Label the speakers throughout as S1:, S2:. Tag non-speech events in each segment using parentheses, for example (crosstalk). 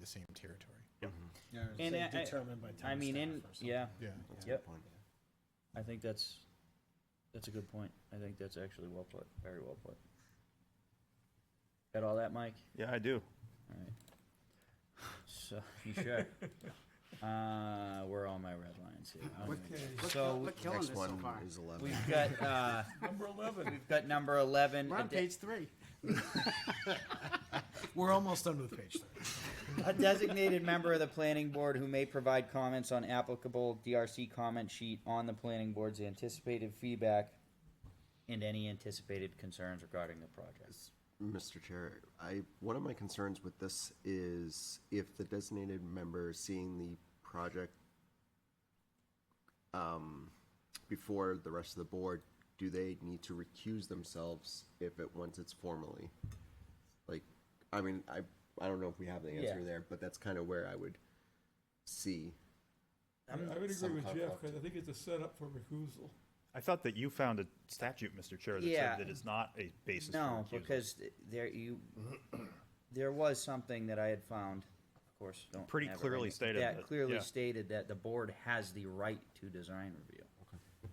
S1: the same territory.
S2: Yeah, I would
S3: And
S2: say
S3: I- I-
S2: determined by
S3: I
S2: town
S3: mean,
S2: staff
S3: in,
S2: or something.
S3: yeah,
S1: Yeah.
S4: That's a
S3: Yep.
S4: good point.
S3: I think that's, that's a good point. I think that's actually well put, very well put. Got all that, Mike?
S4: Yeah, I do.
S3: All right. So,
S2: (laughs)
S3: you sure? Uh, where are all my red lines here? All right.
S2: Okay.
S5: Look,
S3: So-
S5: look, killing
S4: Next
S5: this so
S4: one
S5: far.
S4: is 11.
S3: We've got, uh,
S2: Number eleven.
S3: we've got number eleven.
S5: We're on
S3: ad-
S5: page three.
S1: We're almost done with page three.
S3: A designated member of the planning board who may provide comments on applicable DRC comment sheet on the planning board's anticipated feedback and any anticipated concerns regarding the project.
S4: Mr. Chair, I, one of my concerns with this is if the designated member seeing the project um, before the rest of the board, do they need to recuse themselves if it, once it's formally? Like, I mean, I, I don't know if we have the answer
S3: Yeah.
S4: there, but that's kind of where I would see.
S6: I would agree
S4: some
S6: with Jeff,
S4: conflict.
S6: because I think it's a setup for recusal.
S7: I thought that you found a statute, Mr. Chair, that
S3: Yeah.
S7: said that it's not a basis for
S3: No,
S7: recusal.
S3: because th- there
S7: (clears throat)
S3: you, there was something that I had found, of course, don't.
S7: Pretty
S3: have it right
S7: clearly
S3: now.
S7: stated
S3: That
S7: that-
S3: clearly
S7: yeah.
S3: stated that the board has the right to design review.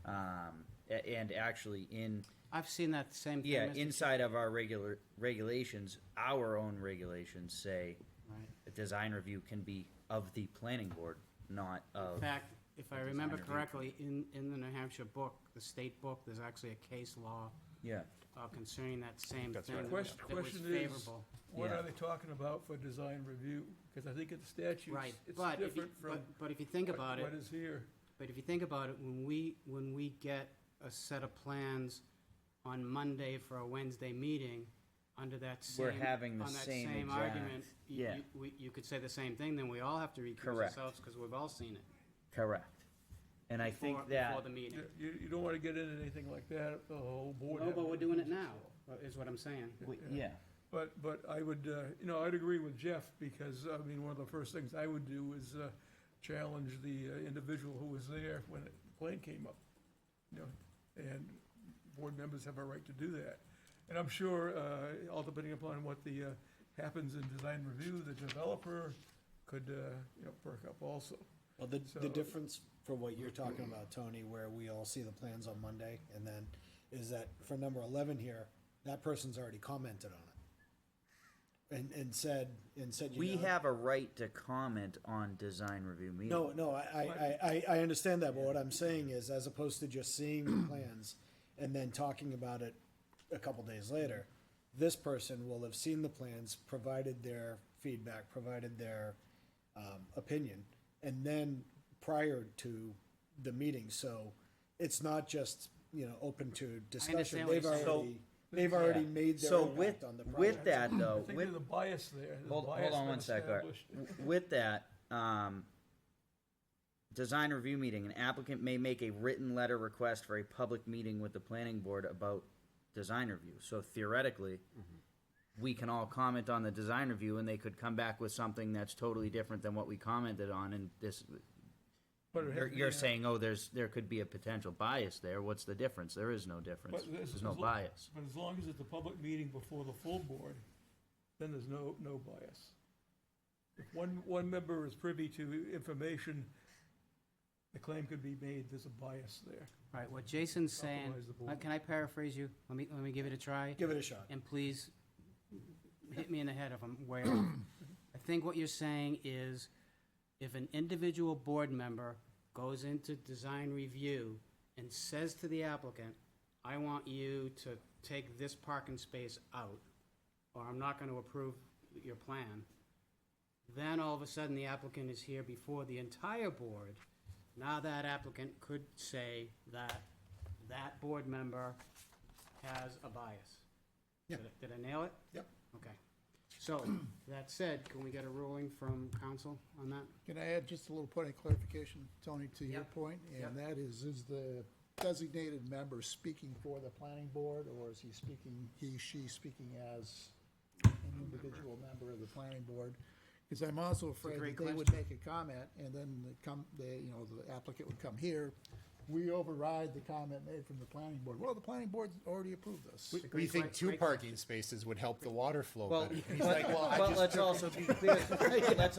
S3: Um, a- and actually in,
S5: I've seen that same thing.
S3: yeah,
S5: Mr.
S3: inside of our regular, regulations, our own regulations say
S5: Right.
S3: the design review can be of the planning board, not
S5: In
S3: of,
S5: fact, if I
S3: Design
S5: remember
S3: review.
S5: correctly, in, in the New Hampshire book, the state book, there's actually a case law
S3: yeah.
S5: uh, concerning that same
S7: That's
S5: thing
S7: right.
S5: that was
S6: Question,
S5: that was
S6: question is,
S5: favorable.
S6: what
S3: Yeah.
S6: are they talking about for design review? Because I think in the statutes,
S5: Right,
S6: it's
S5: but if you,
S6: different from
S5: but, but if you think
S6: what-
S5: about it,
S6: what is here.
S5: But if you think about it, when we, when we get a set of plans on Monday for a Wednesday meeting, under that same.
S3: We're having the same
S5: On that same
S3: exact-
S5: argument, you,
S3: yeah.
S5: you, we- you could say the same thing, then we all have to recuse
S3: Correct.
S5: ourselves, because we've all seen it.
S3: Correct. And I think
S5: before-
S3: that.
S5: Before the meeting.
S6: You, you- you don't want to get into anything like that, the whole board.
S5: No, but
S6: having
S5: we're doing it
S6: recusal.
S5: now, is what I'm saying.
S3: we- Yeah,
S6: But, but I would, uh, you know, I'd agree with Jeff, because, I mean, one of the first things I would do is uh, challenge the uh, individual who was there when the plane came up, you know, and board members have a right to do that. And I'm sure, uh, all depending upon what the, uh, happens in design review, the developer could, uh, you know, perk up also.
S2: Well, the,
S6: So-
S2: the difference for what you're talking about, Tony, where we all see the plans on Monday and then, is that for number eleven here, that person's already commented on it. And, and said, and said, you
S3: we
S2: know-
S3: have a right to comment on design review meetings.
S2: No, no, I, I, I, I understand that, but what I'm saying is, as opposed to just seeing
S5: (clears throat)
S2: the plans and then talking about it a couple days later, this person will have seen the plans, provided their feedback, provided their, um, opinion, and then prior to the meeting, so it's not just, you know, open to discussion,
S5: what
S2: they've
S5: you're saying. So-
S2: already, they've already made their
S3: So with,
S2: impact on the project.
S3: with that
S6: I
S3: though,
S6: think
S3: Uh, with,
S6: there's a bias there. There's a
S3: hold,
S6: bias
S3: hold on
S6: been
S3: one sec, Art.
S6: established.
S3: W- With that, um, design review meeting, an applicant may make a written letter request for a public meeting with the planning board about design review. So theoretically,
S6: Mm-hmm.
S3: we can all comment on the design review and they could come back with something that's totally different than what we commented on and this,
S6: But it has
S3: you're,
S6: to be
S3: you're
S6: a-
S3: saying, oh, there's, there could be a potential bias there. What's the difference? There is no difference.
S6: But this-
S3: There's no
S6: as lo-
S3: bias.
S6: But as long as it's a public meeting before the full board, then there's no, no bias. If one, one member is privy to information, the claim could be made, there's a bias there.
S5: All right, what Jason's saying,
S6: Compromise the board.
S5: uh, can I paraphrase you? Let me, let me give it a try.
S2: Give it a shot.
S5: And please, hit me in the head if I'm way off. I think what you're saying is, if an individual board member goes into design review and says to the applicant, I want you to take this parking space out, or I'm not gonna approve your plan, then all of a sudden, the applicant is here before the entire board. Now that applicant could say that that board member has a bias.
S2: Yeah.
S5: Did I- Did I nail it?
S2: Yep.
S5: Okay. So, (clears throat) that said, can we get a ruling from council on that?
S8: Can I add just a little point of clarification, Tony, to your
S5: Yep.
S8: point? And that is, is the designated member speaking for the planning board, or is he speaking, he, she speaking as an individual member of the planning board? Because I'm also afraid
S5: great
S8: that they would make a comment, and then they come, they, you know, the applicant would come here, we override the comment made from the planning board. Well, the planning board already approved this.
S1: We think
S5: great-
S1: two
S5: great
S1: parking spaces would help the water flow
S3: Well,
S1: (laughs) better. He's like, well, I
S3: but
S1: just
S3: let's also be clear, (laughs) let's